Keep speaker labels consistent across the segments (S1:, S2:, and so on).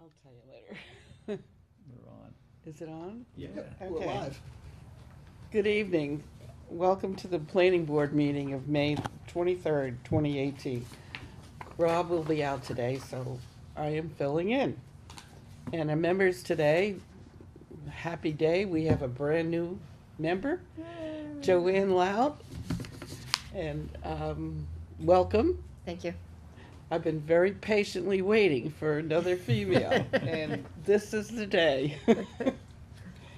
S1: I'll tell you later.
S2: We're on.
S1: Is it on?
S2: Yeah.
S3: We're
S1: Okay.
S3: live.
S1: Good evening. Welcome to the planning board meeting of May twenty-third, twenty eighteen. Rob will be out today, so I am filling in. And our members today, happy day, we have a brand-new member, Joanne Loud. And, um, welcome.
S4: Thank you.
S1: I've been very patiently waiting for another female, and this is the day.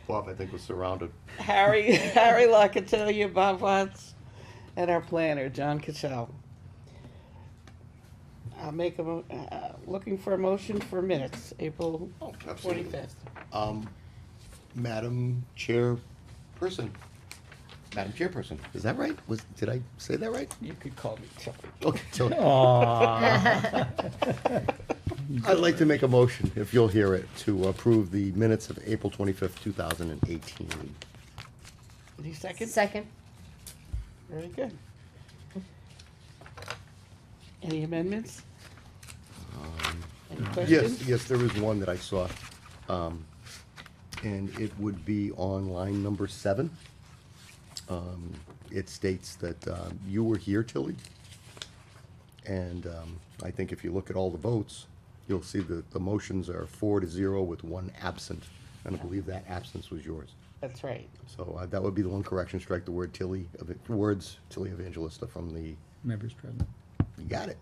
S5: Bob, I think, was surrounded.
S1: Harry, Harry Locatellia, Bob Watts, and our planner, John Cassell. I'll make a, mo- uh, looking for a motion for minutes, April
S5: Oh, absolutely.
S1: twenty-fifth.
S5: Um, Madam Chairperson, Madam Chairperson, is that right? Was, did I say that right?
S1: You could call me Chuck.
S5: Okay, so
S2: Aw.
S5: I'd like to make a motion, if you'll hear it, to approve the minutes of April twenty-fifth, two thousand and eighteen.
S1: Any second?
S4: Second.
S1: Very good. Any amendments? Any
S5: Yes,
S1: questions?
S5: yes, there is one that I saw, um, and it would be on line number seven. Um, it states that, um, you were here, Tilly. And, um, I think if you look at all the votes, you'll see that the motions are four to zero with one absent, and I believe that absence was yours.
S1: That's right.
S5: So, uh, that would be the one correction, strike the word Tilly, ev- words Tilly Evangelista from the,
S2: Members present.
S5: you got it.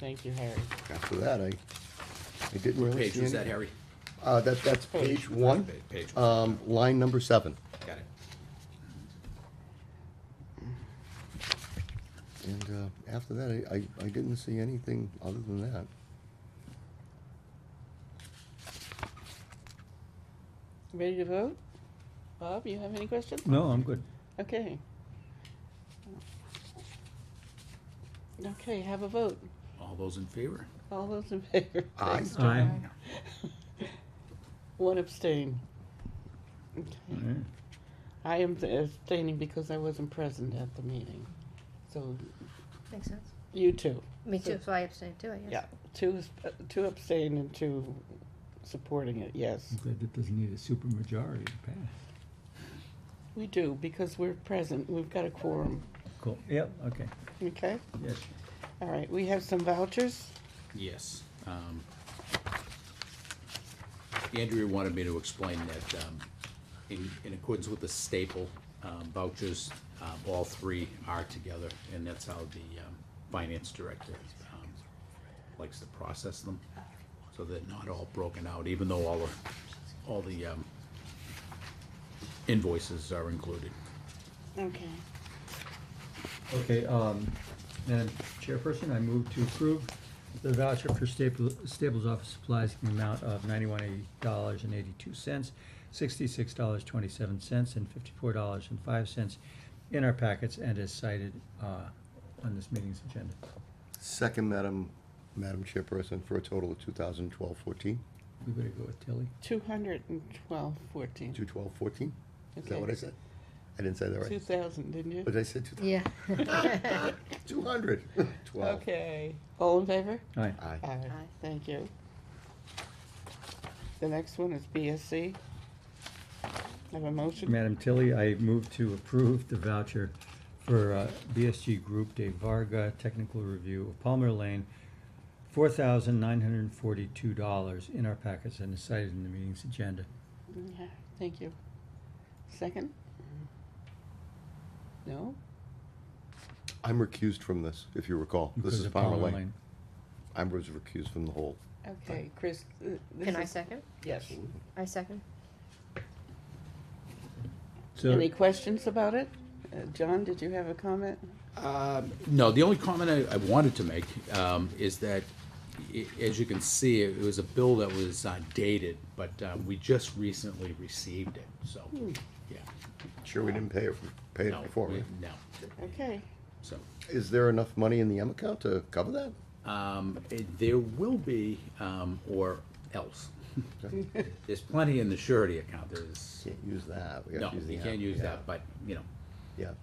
S1: Thank you, Harry.
S5: After that, I, I didn't really see
S6: Page was
S5: any-
S6: that, Harry?
S5: Uh, that, that's page one,
S6: Page- Page, got
S5: um, line number seven.
S6: it.
S5: And, uh, after that, I, I, I didn't see anything other than that.
S1: Ready to vote? Bob, you have any questions?
S2: No, I'm good.
S1: Okay. Okay, have a vote.
S6: All those in favor?
S1: All those in favor?
S5: Aye.
S2: Aye.
S1: One abstain. Okay.
S2: Yeah.
S1: I am abstaining because I wasn't present at the meeting. So
S4: Makes sense.
S1: you too.
S4: Me too, so I abstained too, I guess.
S1: Yeah, two, is- uh, two abstain and two supporting it, yes.
S2: I'm glad that doesn't need a super majority to pass.
S1: We do, because we're present, we've got a quorum,
S2: Cool. Yep, okay.
S1: okay?
S2: Yes.
S1: All right, we have some vouchers.
S6: Yes. um, Andrea wanted me to explain that um, in in accordance with the staple um, vouchers, um, all three are together, and that's how the um, finance director um, likes to process them, so they're not all broken out, even though all the, all the um, invoices are included.
S1: Okay.
S2: Okay, um, Madam Chairperson, I move to approve the voucher for Staples, Staples Office Supplies in the amount of ninety-one dollars and eighty-two cents, sixty-six dollars twenty-seven cents, and fifty-four dollars and five cents in our packets and as cited, uh, on this meeting's agenda.
S5: Second, Madam, Madam Chairperson, for a total of two thousand twelve fourteen,
S2: We better go with Tilly.
S1: Two hundred and twelve fourteen.
S5: two twelve fourteen? Is that
S1: Okay.
S5: what I said? I didn't say that
S1: Two
S5: right.
S1: thousand, didn't you?
S5: But I said two,
S4: Yeah.
S5: two hundred, twelve.
S1: Okay. All in favor?
S2: Aye.
S5: Aye.
S1: Aye.
S4: Aye.
S1: Thank you. The next one is BSC. Have a motion?
S2: Madam Tilly, I move to approve the voucher for uh, BSG Group de Varga Technical Review of Palmer Lane, four thousand nine hundred and forty-two dollars in our packets and is cited in the meeting's agenda.
S1: Yeah, Thank you. Second? No?
S5: I'm recused from this, if you recall. This
S2: because
S5: is
S2: of
S5: Palmer Lane. I was recused from the whole.
S1: Okay, Chris, uh, this
S4: Can I
S1: is-
S4: second?
S1: Yes.
S4: I second.
S2: So,
S1: Any questions about it? Uh, John, did you have a comment?
S6: Um, No, the only comment I, I wanted to make um, is that, i- as you can see, it was a bill that was uh, dated, but um, we just recently received it, so, yeah.
S5: Sure, we didn't pay it, pay
S6: No,
S5: it Hmm. before.
S6: we-
S5: right?
S6: No,
S1: Okay.
S6: so,
S5: Is there enough money in the M account to cover that?
S6: um, eh, there will be, um, or else. There's plenty in the surety account, there's,
S5: Can't use that. We gotta
S6: no,
S5: use the
S6: you
S5: app.
S6: can't use
S5: Yeah.
S6: that, but, you know,
S5: Yeah,